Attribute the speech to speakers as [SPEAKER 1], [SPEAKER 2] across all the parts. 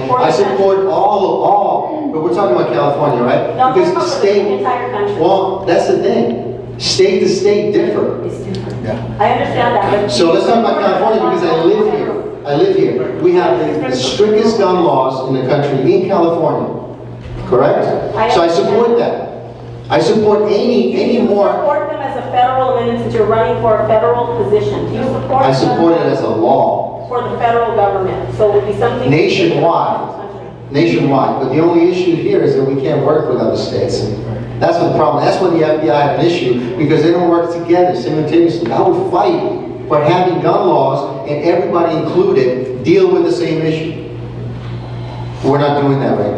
[SPEAKER 1] support
[SPEAKER 2] I
[SPEAKER 1] that.
[SPEAKER 2] support all, all, but we're talking about California, right?
[SPEAKER 1] No, I'm talking
[SPEAKER 2] Because
[SPEAKER 1] about the
[SPEAKER 2] state,
[SPEAKER 1] entire country.
[SPEAKER 2] well, that's the thing, state to state differ.
[SPEAKER 1] It's different.
[SPEAKER 2] Yeah.
[SPEAKER 1] I understand that, but.
[SPEAKER 2] So let's talk about California because I live here. I live here. We have the strictest gun laws in the country in California, correct? So I support that. I support any,
[SPEAKER 1] Do
[SPEAKER 2] any
[SPEAKER 1] you
[SPEAKER 2] more,
[SPEAKER 1] support them as a federal, and since you're running for a federal position, do you support?
[SPEAKER 2] I support it
[SPEAKER 1] them
[SPEAKER 2] as a law
[SPEAKER 1] For the federal government, so it would be something.
[SPEAKER 2] Nationwide. nationwide, but the only issue here is that we can't work with other states. That's the problem. That's where the FBI had an issue because they don't work together simultaneously. I would fight for having gun laws and everybody included deal with the same issue. We're not doing that right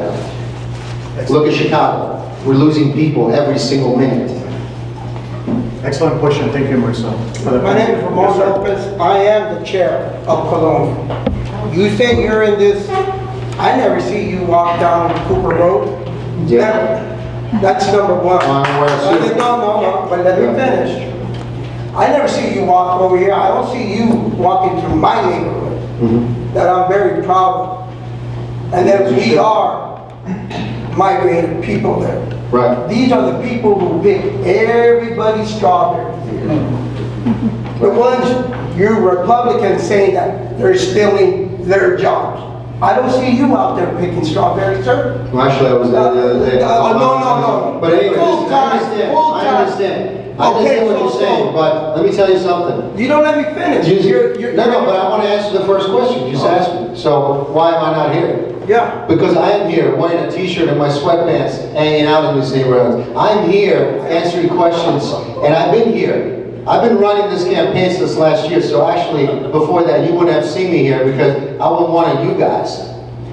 [SPEAKER 2] now. Look at Chicago. We're losing people every single minute.
[SPEAKER 3] Excellent question, thank you, Mauricio. for the-
[SPEAKER 4] My name is Ramon Lopez, I am the chair of Cologne. You say you're in this, I never see you walk down Cooper Road.
[SPEAKER 2] Yeah.
[SPEAKER 4] Never. That's number one.
[SPEAKER 2] Well, I'm aware of
[SPEAKER 4] But
[SPEAKER 2] two.
[SPEAKER 4] then- No, no, no, but let me finish. I never see you walk over here, I don't see you walking through my neighborhood that I'm very proud of. And that we are migrating people there.
[SPEAKER 2] Right,
[SPEAKER 4] These are the people who pick everybody's strawberry. The ones, you Republicans saying that they're stealing their jobs. I don't see you out there picking strawberries, sir.
[SPEAKER 2] well, actually, I was there the other day.
[SPEAKER 4] Uh, uh, no, no, no.
[SPEAKER 2] But anyway, listen, I
[SPEAKER 4] Full-time,
[SPEAKER 2] understand, I
[SPEAKER 4] full-time.
[SPEAKER 2] understand. I
[SPEAKER 4] Okay,
[SPEAKER 2] understand what you're
[SPEAKER 4] so-
[SPEAKER 2] saying, but let me tell you something.
[SPEAKER 4] You don't let me finish. You're-
[SPEAKER 2] You-
[SPEAKER 4] you're-
[SPEAKER 2] No, no, but I want to answer the first question you just asked me. So why am I not here?
[SPEAKER 4] Yeah,
[SPEAKER 2] Because I am here wearing a t-shirt and my sweatpants hanging out in these neighborhoods. I'm here answering questions, and I've been here. I've been running this campaign since last year, so actually, before that, you wouldn't have seen me here because I wasn't one of you guys.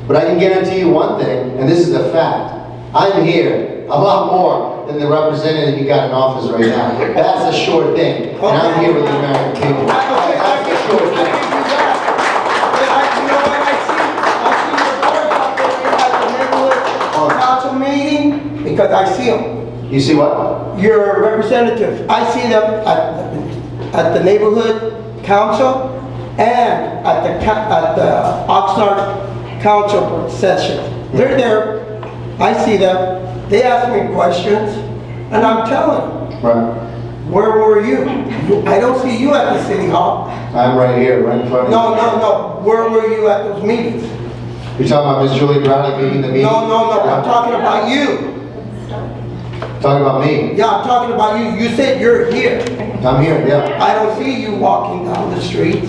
[SPEAKER 2] But I can guarantee you one thing, and this is a fact. I'm here a lot more than the representative you got in office right now. That's a sure thing, and I'm here with the American people. That's a sure thing.
[SPEAKER 4] But I- you know what I see? I see your board out there
[SPEAKER 2] Oh.
[SPEAKER 4] at the neighborhood council meeting, because I see them.
[SPEAKER 2] You see what?
[SPEAKER 4] Your representative, I see them at, at the neighborhood council and at the, ca- at the Oxnard council session. They're there, I see them, they ask me questions, and I'm telling, them,
[SPEAKER 2] Right.
[SPEAKER 4] where were you? I don't see you at the city hall.
[SPEAKER 2] I'm right here, right in front of you.
[SPEAKER 4] No, no, no, where were you at those meetings?
[SPEAKER 2] You're talking about Ms. Julie Brown leaving the meeting?
[SPEAKER 4] No, no, no, I'm talking about you.
[SPEAKER 2] Talking about me.
[SPEAKER 4] Yeah, I'm talking about you. You said you're here.
[SPEAKER 2] I'm here, yeah.
[SPEAKER 4] I don't see you walking down the street.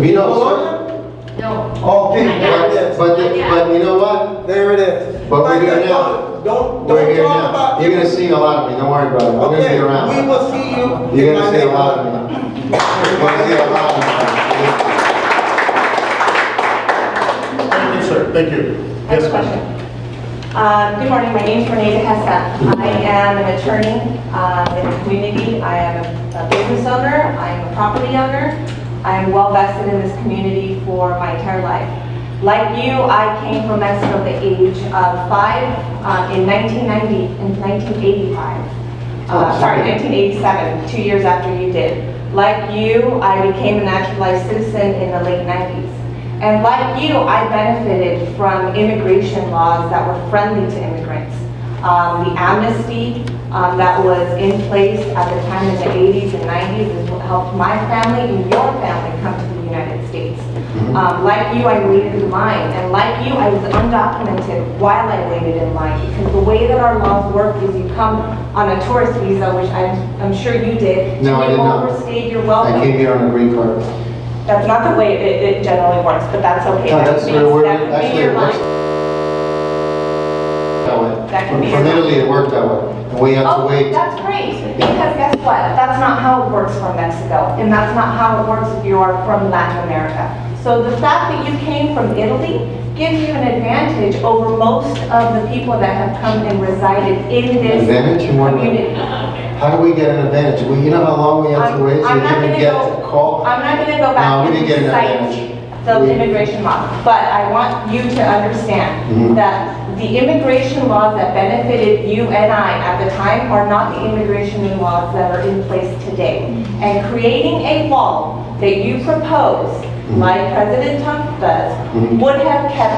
[SPEAKER 2] You know,
[SPEAKER 5] No.
[SPEAKER 4] Okay, there it
[SPEAKER 2] but,
[SPEAKER 4] is.
[SPEAKER 2] but, but you know what?
[SPEAKER 4] There it is.
[SPEAKER 2] But we're here now.
[SPEAKER 4] Don't,
[SPEAKER 2] We're
[SPEAKER 4] don't
[SPEAKER 2] here
[SPEAKER 4] talk
[SPEAKER 2] now.
[SPEAKER 4] about
[SPEAKER 2] You're gonna
[SPEAKER 4] it.
[SPEAKER 2] see a lot of me, don't worry about it. I'm gonna be
[SPEAKER 4] Okay,
[SPEAKER 2] around.
[SPEAKER 4] we will see you.
[SPEAKER 2] You're
[SPEAKER 4] in my
[SPEAKER 2] gonna see a lot
[SPEAKER 4] neighborhood.
[SPEAKER 2] of me. You're gonna see a lot of me.
[SPEAKER 3] Thank you, sir, thank you.
[SPEAKER 6] I have
[SPEAKER 3] Yes, ma'am.
[SPEAKER 6] a question. Um, Good morning, my name's Renee DeHessa. I am an attorney uh, in the community. I am a business owner, I am a property owner. I am well vested in this community for my entire life. Like you, I came from Mexico at the age of five uh, in 1990, in 1985 uh, sorry, 1987, two years after you did. Like you, I became a naturalized citizen in the late 90s. And like you, I benefited from immigration laws that were friendly to immigrants. Um, The amnesty um, that was in place at the time in the 80s and 90s is what helped my family and your family come to the United States. Um, Like you, I waited in line, and like you, I was undocumented while I waited in line, because the way that our laws work is you come on a tourist visa, which I'm, I'm sure you did.
[SPEAKER 2] No, I did not.
[SPEAKER 6] You overstayed your
[SPEAKER 2] I came
[SPEAKER 6] welcome.
[SPEAKER 2] here on a green card.
[SPEAKER 6] That's not the way it, it generally works, but that's okay.
[SPEAKER 2] No, that's
[SPEAKER 6] means-
[SPEAKER 2] where we're,
[SPEAKER 6] that could be
[SPEAKER 2] actually,
[SPEAKER 6] your
[SPEAKER 2] it works.
[SPEAKER 6] line.
[SPEAKER 2] That way.
[SPEAKER 6] That can be your
[SPEAKER 2] From
[SPEAKER 6] line.
[SPEAKER 2] Italy, it worked that way. And we have to
[SPEAKER 6] Oh,
[SPEAKER 2] wait.
[SPEAKER 6] that's great, because guess what? That's not how it works for Mexico, and that's not how it works if you are from Latin America. So the fact that you came from Italy gives you an advantage over most of the people that have come and resided in this
[SPEAKER 2] Advantage in what way?
[SPEAKER 6] community.
[SPEAKER 2] How do we get an advantage? Well, you know how long we have
[SPEAKER 6] I'm
[SPEAKER 2] to wait to
[SPEAKER 6] I'm not
[SPEAKER 2] even
[SPEAKER 6] gonna
[SPEAKER 2] get
[SPEAKER 6] go.
[SPEAKER 2] the call?
[SPEAKER 6] I'm not gonna go
[SPEAKER 2] No,
[SPEAKER 6] back
[SPEAKER 2] we
[SPEAKER 6] and
[SPEAKER 2] didn't get an
[SPEAKER 6] cite
[SPEAKER 2] advantage.
[SPEAKER 6] the
[SPEAKER 2] We-
[SPEAKER 6] immigration law, but I want you to
[SPEAKER 2] Mhm.
[SPEAKER 6] understand that the immigration laws that benefited you and I at the time are not the immigration laws that are in place today. And creating a
[SPEAKER 2] Mm-hmm.
[SPEAKER 6] wall that you propose, like President Trump does,
[SPEAKER 2] Mhm.
[SPEAKER 6] would have kept